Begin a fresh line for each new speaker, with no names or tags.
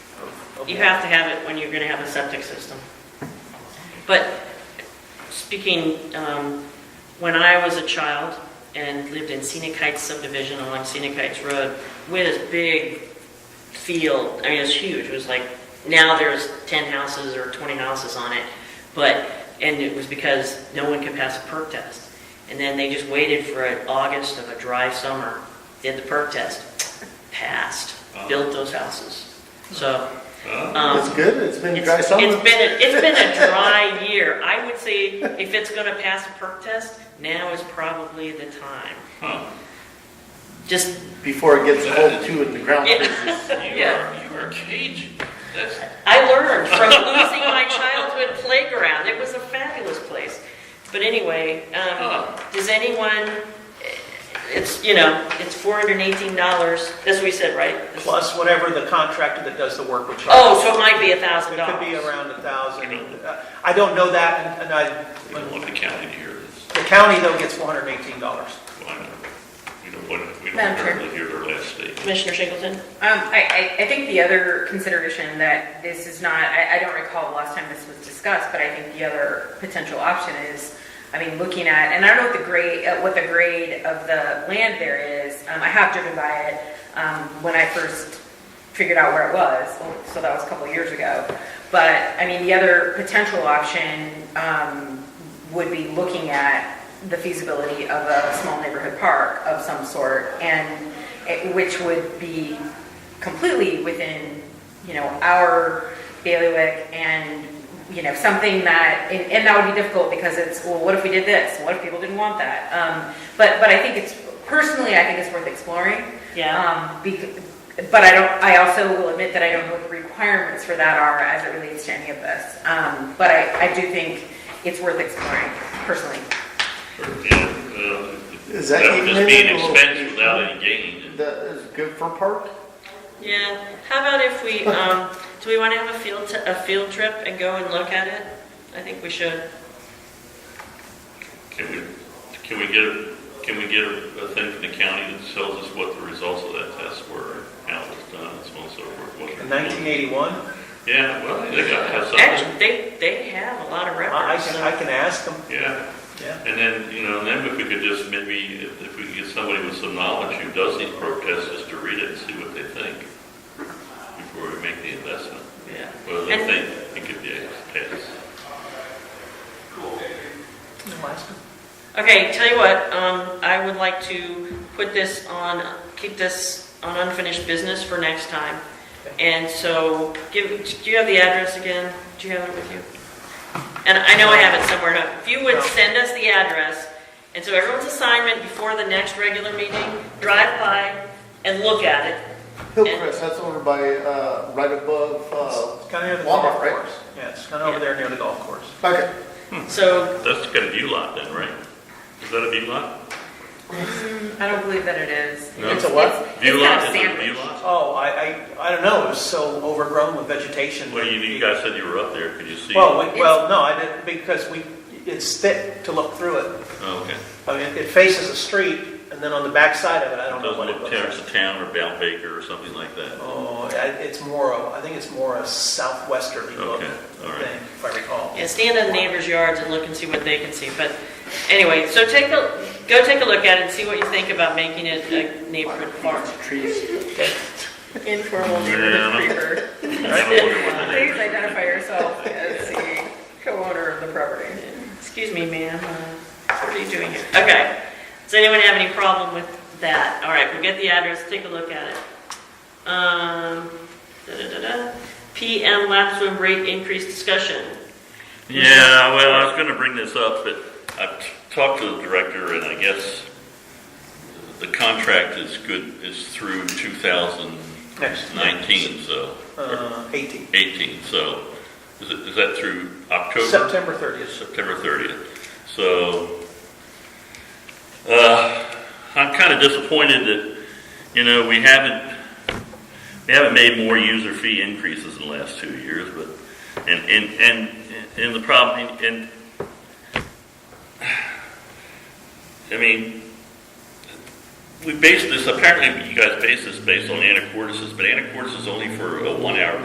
You have to have it when you're going to have a septic system. But speaking, um, when I was a child and lived in Scenic Heights subdivision along Scenic Heights Road, we had this big field, I mean, it was huge, it was like, now there's 10 houses or 20 houses on it, but, and it was because no one could pass a perk test. And then they just waited for an August of a dry summer, did the perk test, passed, built those houses. So, um,
It's good, it's been dry
it's,
summer.
it's been, a- it's been a dry year. I would say if it's gonna pass a perk test, now is probably the time.
Huh.
Just,
Before it gets cold too and the ground
Yeah.
freezes.
You are, you are Cajun. That's,
I learned from losing my childhood playground. It was a fabulous place. But anyway, um,
huh.
does anyone, it's, you know, it's four hundred and eighteen dollars, that's what we said, right?
Plus whatever the contractor that does the work would charge.
Oh, so it might be a thousand
It could be
dollars.
around a thousand. Uh, I don't know that, and- and I,
We don't want the county to hear this.
the county though gets four hundred and eighteen dollars.
Why not? We don't want, we don't
Madam Chair.
hardly hear their last statement.
Commissioner Singleton?
Um, I, I, I think the other consideration that this is not, I, I don't recall the last time this was discussed, but I think the other potential option is, I mean, looking at, and I don't know what the grade, uh, what the grade of the land there is. Um, I have driven by it, um, when I first figured out where it was, so that was a couple of years ago. But, I mean, the other potential option, um, would be looking at the feasibility of a small neighborhood park of some sort, and it- which would be completely within, you know, our bailiwick and, you know, something that, and, and that would be difficult because it's, well, what if we did this? What if people didn't want that? Um, but, but I think it's, personally, I think it's worth exploring.
Yeah.
Um, bec- but I don't, I also will admit that I don't know what the requirements for that are as it relates to any of this. Um, but I, I do think it's worth exploring personally.
Is
Is that
That would
even
just be an
in or-
expense without any gain.
That is good for park?
Yeah, how about if we, um, do we want to have a field, t- a field trip and go and look at it? I think we should.
Can we, can we get, a- can we get a a thing from the county that tells us what the results of that test were, how it was done, and so on and so forth? what-
In nineteen eighty-one,
Yeah, well, they gotta have
Actually,
something,
they, they have a lot of
I I
records,
can,
so-
I can ask them,
yeah.
yeah.
And then, you know, and then if we could just maybe, if if we could get somebody with some knowledge who does these protests, just to read it and see what they think before we make the investment.
yeah.
Well, they
And-
think it could be a pass.
I'll ask them.
Okay, tell you what, um, I would like to put this on, keep this on unfinished business for next time. And so, give, do you have the address again? Do you have it with you? And I know I have it somewhere, huh? if you would send us the address, and so everyone's assignment before the next regular meeting, drive by and look at it,
Hillcrest, that's over by, uh, right above, uh,
It's kind of near the
Walmart,
golf
right?
course. Yeah, it's kind of over there near the golf course.
okay.
so
That's got a view lot then, right? Is that a view lot?
I don't believe that it is.
No.
It's a what?
View
It's
lot,
kind
is
of
it a view
sandwich.
lot?
Oh, I, I, I don't know, it was so overgrown with vegetation.
Well, you, you guys said you were up there, could you see?
Well, we-
It's-
well, no, I didn't, because we, it's thick to look through it.
Oh, okay.
I mean, it faces a street, and then on the back side of it, I don't know
Doesn't
what it
look
looks
Terrace
like.
of Town or Val Baker or something like that?
Oh, I- it's more, of- I think it's more a southwesterly look,
Okay, all right.
thing, if I recall.
Yeah, stand in the neighbor's yards and look and see what they can see, but anyway, so take a, go take a look at it and see what you think about making it a neighborhood park.
Trees.
Informal
Yeah.
neighborhood
I
creeper.
don't wonder what the
Please
neighbors-
identify yourself as the co-owner of the property.
Excuse me, ma'am, uh, what are you doing here? Okay, does anyone have any problem with that? All right, we'll get the address, take a look at it. Um, da-da-da-da, PM lap swim rate increase discussion.
Yeah, well, I was gonna bring this up, but I've t- talked to the director and I guess the contract is good, is through two thousand
Next,
nineteen, so, or
uh, 18,
eighteen, so, is it, is that through October?
September 30th.
September 30th. So, uh, I'm kind of disappointed that, you know, we haven't, we haven't made more user fee increases in the last two years, but, and, and, and, and the problem, and, I mean, we base this, apparently you guys base this based on anacortes, but anacortes is only for a one-hour